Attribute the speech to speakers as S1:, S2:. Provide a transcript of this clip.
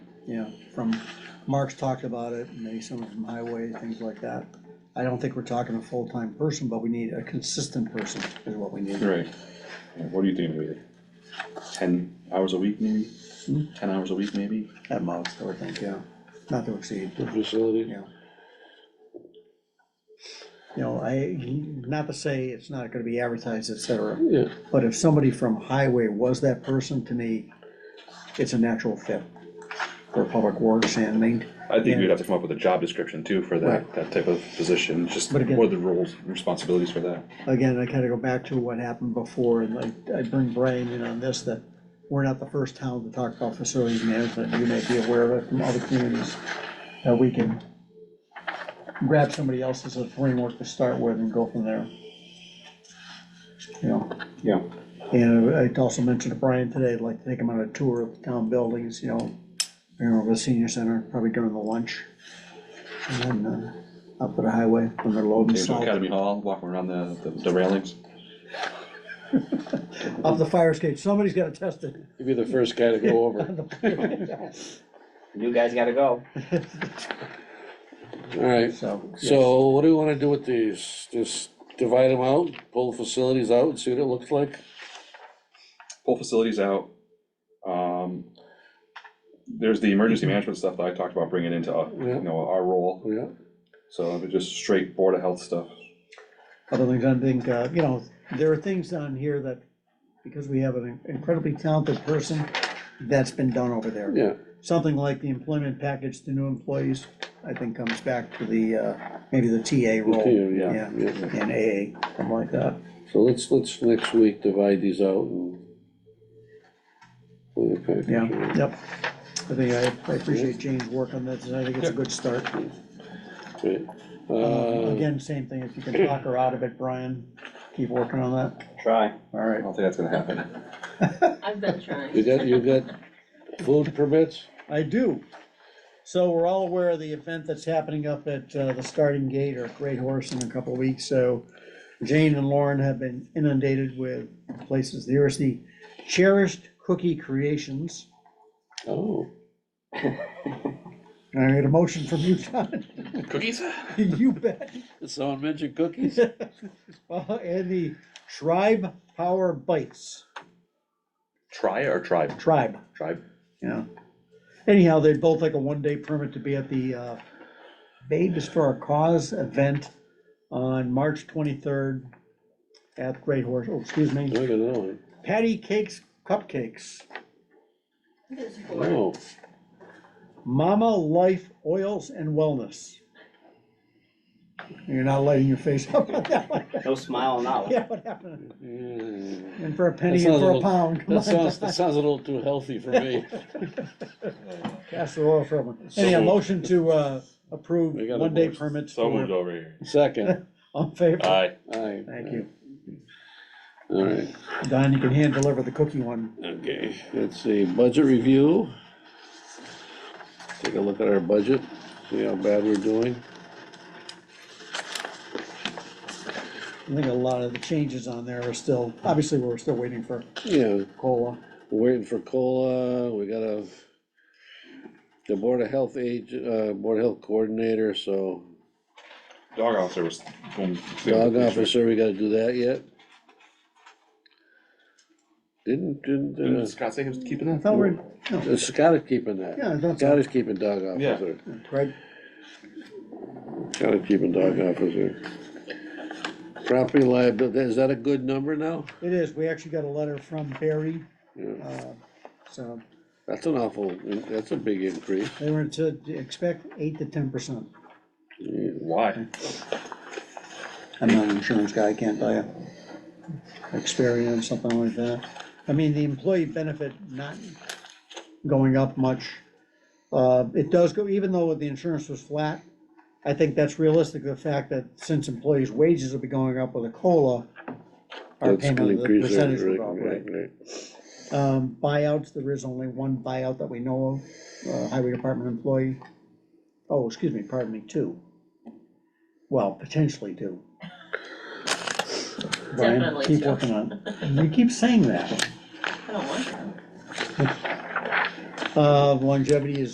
S1: you know, from, Mark's talked about it, maybe someone from highway, things like that. I don't think we're talking a full-time person, but we need a consistent person is what we need.
S2: Right. Yeah, What do you think, maybe ten hours a week maybe?
S1: Hmm?
S2: Ten hours a week maybe?
S1: At most, I would think, yeah, not to exceed,
S3: the facility.
S1: you know. You know, I, not to say it's not gonna be advertised, et cetera,
S3: Yeah,
S1: But if somebody from highway was that person, to me, it's a natural fit for public works and main,
S2: I think
S1: Yeah.
S2: we'd have to come up with a job description too for that,
S1: Right.
S2: that type of position, just
S1: But
S2: what
S1: again-
S2: are the roles, responsibilities for that?
S1: again, I kinda go back to what happened before, and I, I bring Brian in on this, that we're not the first town to talk about facilities management, you may be aware of it from other communities, that we can grab somebody else as a framework to start with and go from there. You know?
S2: Yeah.
S1: And I also mentioned to Brian today, I'd like to take him on a tour of the town buildings, you know, you know, the senior center, probably during the lunch. And then, uh, up at the highway when they're loading
S2: Take 'em to
S1: salt,
S2: Academy Hall, walk 'em around the, the- the railings.
S1: up the fire escape, somebody's gotta test it.
S3: you'd be the first guy to go over.
S4: You guys gotta go.
S3: All right,
S1: So. yes.
S3: so what do we wanna do with these? Just divide them out, pull facilities out and see what it looks like?
S2: pull facilities out. Um, there's the emergency
S1: Mm-hmm.
S2: management stuff that I talked about bringing into, uh,
S3: Yeah.
S2: you know, our role,
S3: Oh, Yeah,
S2: so it'd be just straight Board of Health stuff.
S1: other things, I think, uh, you know, there are things on here that, because we have an incredibly talented person, that's been done over there.
S3: yeah,
S1: Something like the employment package to new employees, I think comes back to the, uh, maybe the TA role,
S3: continue,
S1: Yeah.
S3: yeah, yeah.
S1: and AA, something like that.
S3: So let's, let's next week divide these out and. Okay.
S1: Yeah, yep. I think I, I appreciate Jane's work on this, and I think it's a good start.
S3: Right.
S1: Uh,
S3: Uh,
S1: Again, same thing, if you can talk her out of it, Brian, keep working on that,
S4: Try.
S1: all
S2: I
S1: right.
S2: don't think that's gonna happen.
S5: I've been trying.
S3: You got, you got food permits?
S1: I do. So we're all aware of the event that's happening up at uh, the starting gate or Great Horse in a couple of weeks, so Jane and Lauren have been inundated with places. There's the Cherished Cookie Creations.
S3: Oh,
S1: And I need a motion from you, John.
S2: Cookies?
S1: You bet.
S3: did someone mention cookies?
S1: Uh, And the Tribe Power Bites,
S2: Try or tribe?
S1: Tribe,
S2: Tribe.
S1: yeah. Anyhow, they both like a one-day permit to be at the uh, Babes for a Cause event on March twenty-third at Great Horse, oh, excuse
S3: I
S1: me,
S3: don't know.
S1: Patty Cakes Cupcakes,
S5: It's boring.
S3: Oh,
S1: Mama Life Oils and Wellness. You're not lighting your face up on that one.
S4: No smile now.
S1: Yeah, what happened?
S3: yeah.
S1: And for a penny
S3: That
S1: and
S3: sounds a
S1: for a
S3: little-
S1: pound. come
S3: That
S1: on.
S3: sounds, that sounds a little too healthy for me.
S1: Castor oil for everyone. Anyhow,
S3: So-
S1: motion to uh, approve
S3: We got a
S1: one-day
S3: motion.
S1: permits
S2: So moved
S1: for,
S2: over here.
S3: Second,
S1: on favor.
S2: Aye.
S3: aye.
S1: Thank you.
S3: All right,
S1: Don, you can hand deliver the cookie one.
S3: okay, let's see, budget review. Take a look at our budget, see how bad we're doing.
S1: I think a lot of the changes on there are still, obviously, we're still waiting for
S3: Yeah,
S1: COLA.
S3: we're waiting for COLA, we got a, the Board of Health age, uh, Board of Health Coordinator, so
S2: Dog officer was. going-
S3: Dog officer, we gotta do that yet? Didn't,
S2: Didn't
S3: didn't,
S2: Scott say he was keeping
S1: I
S2: that?
S1: thought we're,
S3: uh, Scott is keeping that.
S1: yeah, that's
S3: Scott is keeping dog
S2: Yeah.
S3: officer.
S1: right.
S3: Gotta keep a dog officer. Property liability, is that a good number now?
S1: It is. We actually got a letter from Barry,
S3: Yeah,
S1: uh, so
S3: That's an awful, that's a big increase.
S1: they were to expect eight to ten percent.
S3: Yeah.
S2: Why?
S1: I'm not an insurance guy, I can't tell you. Experian, something like that. I mean, the employee benefit not going up much. Uh, it does go, even though the insurance was flat, I think that's realistic, the fact that since employees' wages will be going up with a COLA, our
S3: That's
S1: payment
S3: gonna
S1: of the
S3: increase that,
S1: percentage will
S3: right,
S1: go up, right?
S3: right, right.
S1: Um, buyouts, there is only one buyout that we know of, uh, highway department employee. Oh, excuse me, pardon me, two. Well, potentially two. Brian,
S5: Definitely
S1: keep
S5: two.
S1: working on it. You keep saying that.
S5: I don't want that.
S1: Uh, longevity is